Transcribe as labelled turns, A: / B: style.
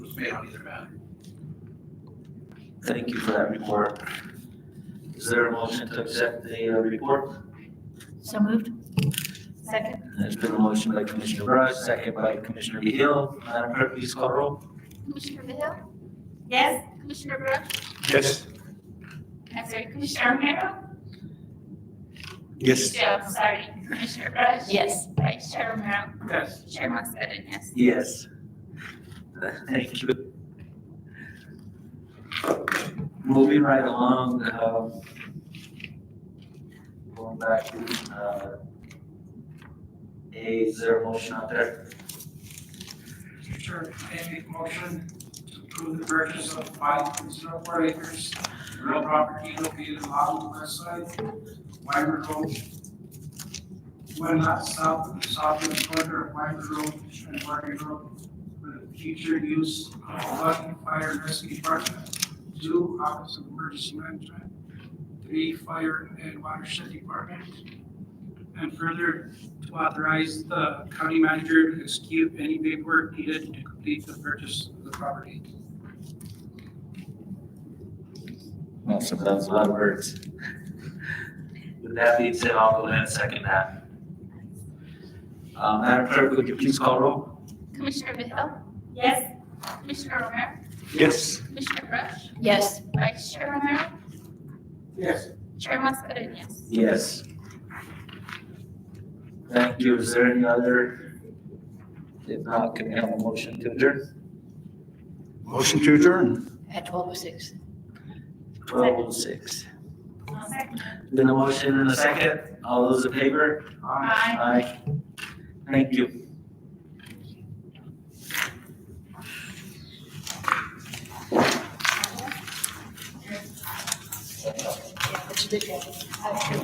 A: was made on either matter. Thank you for that report. Is there a motion to accept the uh, report?
B: So moved.
C: Second.
A: There's been a motion by Commissioner Brush, second by Commissioner Hill. Madam Clerk, please call roll.
C: Commissioner Vehil? Yes. Commissioner Brush?
D: Yes.
C: I'm sorry, Commissioner Romero?
D: Yes.
C: Yeah, I'm sorry, Commissioner Brush?
B: Yes.
C: Vice Chair Romero?
D: Yes.
C: Chair Mascherini, yes.
A: Yes. Thank you. Moving right along, um, going back to, uh, A, is there a motion out there?
E: Mr. Chair, may I make a motion to approve the purchase of five point zero four acres of real property located along the west side, of Wyver Road, one lot south of the southwest corner of Wyver Road and Wyver Road, for the future use of one fire rescue department, two office of emergency management, three fire and watershed department, and further to authorize the county manager to execute any paperwork needed to complete the purchase of the property.
A: Awesome, that was a lot of words. With that being said, I'll go ahead and second that. Uh, Madam Clerk, would you please call roll?
C: Commissioner Vehil? Yes. Commissioner Romero?
D: Yes.
C: Commissioner Brush?
B: Yes.
C: Vice Chair Romero?
D: Yes.
C: Chair Mascherini, yes.
A: Yes. Thank you, is there any other? If not, can we have a motion to adjourn?
D: Motion to adjourn.
B: At twelve oh six.
A: Twelve oh six.
C: Second.
A: Then a motion and a second, all those in favor?
C: Aye.
A: Aye. Thank you.
B: Yeah, but you did get it.